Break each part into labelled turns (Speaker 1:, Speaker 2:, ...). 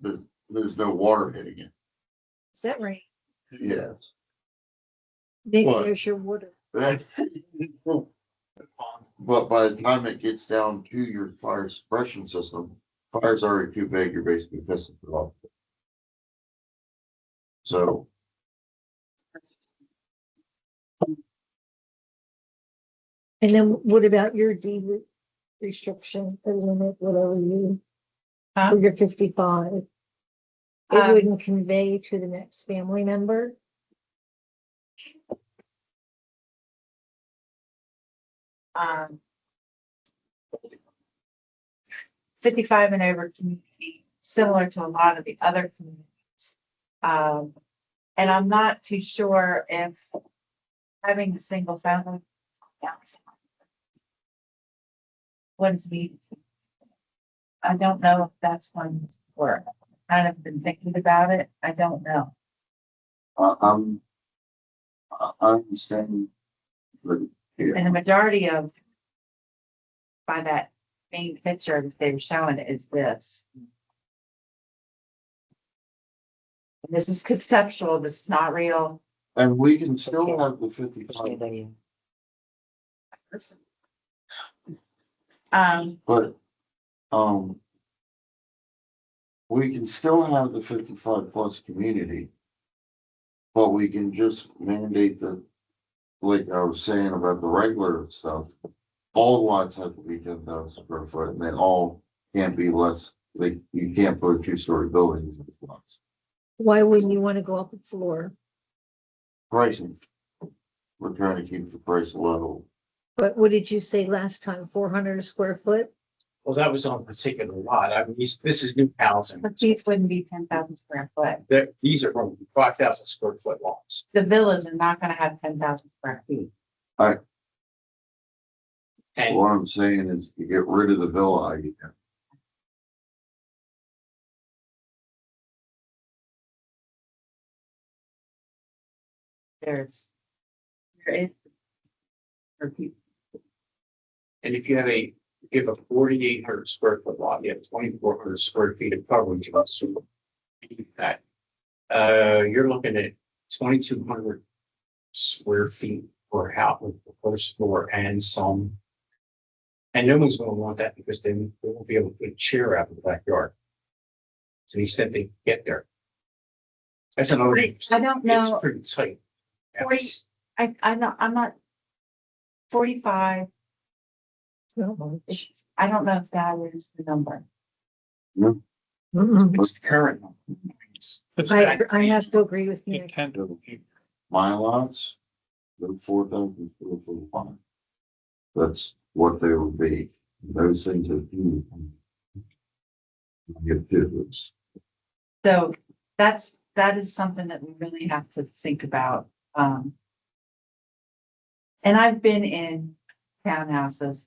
Speaker 1: there's, there's no water hitting it.
Speaker 2: Is that right?
Speaker 1: Yes.
Speaker 2: Maybe
Speaker 1: What?
Speaker 2: there's your water.
Speaker 1: That- But by the time it gets down to your fire suppression system, fire's already too big, you're basically pissing it off. So.
Speaker 2: And then what about your deed re- restriction, the limit, whatever you,
Speaker 3: Huh?
Speaker 2: for your fifty-five? It
Speaker 3: Um,
Speaker 2: wouldn't convey to the next family member?
Speaker 3: um. Fifty-five and over community, similar to a lot of the other communities. Um, and I'm not too sure if having a single family. What's needed. I don't know if that's one where I've kind of been thinking about it. I don't know.
Speaker 1: I, I'm. I, I'm saying. that here,
Speaker 3: And the majority of. By that main picture that they were showing is this. And This is conceptual, this is not real.
Speaker 1: And we can still have the fifty-five,
Speaker 3: Um,
Speaker 1: but, um. We can still have the fifty-five plus community. But we can just mandate the, like I was saying about the regular stuff. All lots have to be ten thousand square foot and they all can't be less, like, you can't put a two-story building in these lots.
Speaker 2: Why wouldn't you want to go up a floor?
Speaker 1: Pricing. We're trying to keep the price level.
Speaker 2: But what did you say last time? Four hundred a square foot?
Speaker 4: Well, that was on a particular lot. I mean, these- this is new housing.
Speaker 3: but these wouldn't be ten thousand square foot.
Speaker 4: That, these are going to be five thousand square foot lots.
Speaker 3: The villas are not gonna have ten thousand square feet.
Speaker 4: And
Speaker 1: What I'm saying is to get rid of the villa idea.
Speaker 3: There's. There is. For people,
Speaker 4: And if you have a, give a forty-eight hundred square foot lot, you have twenty-four hundred square feet of coverage. let's assume. That, uh, you're looking at twenty-two hundred square feet per house, with the first floor and some. And no one's gonna want that because then they won't be able to put a chair out in the backyard. To the extent they get there. That's another.
Speaker 3: I I don't know.
Speaker 4: It's pretty tight.
Speaker 3: Forty-
Speaker 4: Yes.
Speaker 3: I, I'm not, I'm not. Forty-five,
Speaker 2: It's not much.
Speaker 3: I don't know if that is the number.
Speaker 2: Mm-mm.
Speaker 4: What's the current? number?
Speaker 2: I, I have to agree with you.
Speaker 1: My lots, the four thousand square foot lot. That's what they would be. Those things are. huge. Get difference.
Speaker 3: So that's, that is something that we really have to think about, um. And I've been in townhouses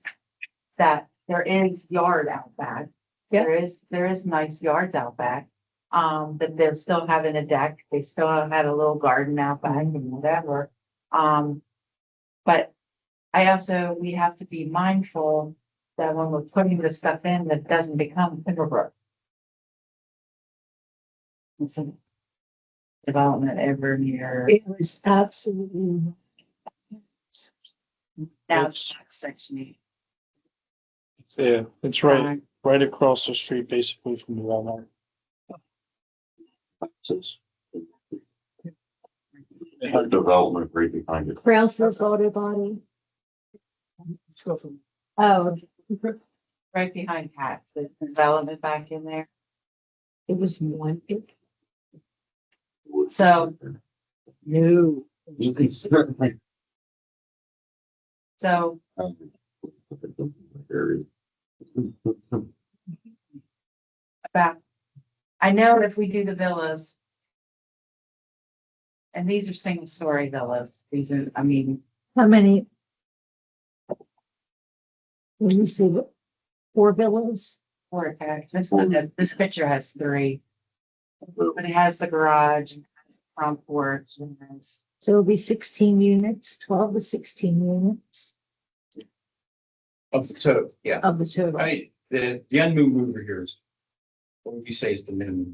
Speaker 3: that there is yard out back.
Speaker 2: Yeah.
Speaker 3: There is, there is nice yards out back, um, but they're still having a deck, they still had a little garden out back and whatever. Um, but I also, we have to be mindful that when we're putting this stuff in, that doesn't become Timberbrook. It's a development ever near
Speaker 2: It was absolutely.
Speaker 3: down
Speaker 5: Yes.
Speaker 3: section eight. um,
Speaker 5: It's, Yeah, it's right, right across the street basically from the Walmart.
Speaker 1: They have Development right behind it.
Speaker 2: Krause's auto body. Oh,
Speaker 3: Right behind Pat, the development back in there.
Speaker 2: it was one. it-
Speaker 3: So,
Speaker 5: No.
Speaker 1: You can certainly. um,
Speaker 3: so
Speaker 1: have it. Very-
Speaker 3: about, I know if we do the villas. And these are single story villas. These are, I mean,
Speaker 2: How many? When you see what, four villas?
Speaker 3: four attached. This one, that- this picture has three. But it has the garage and has the front porch and has
Speaker 2: So it'll be sixteen units, twelve to sixteen units
Speaker 4: Of the
Speaker 2: Uh,
Speaker 4: total, yeah.
Speaker 2: of the total.
Speaker 4: I mean, the, the unmoved mover here is, what would you say is the minimum?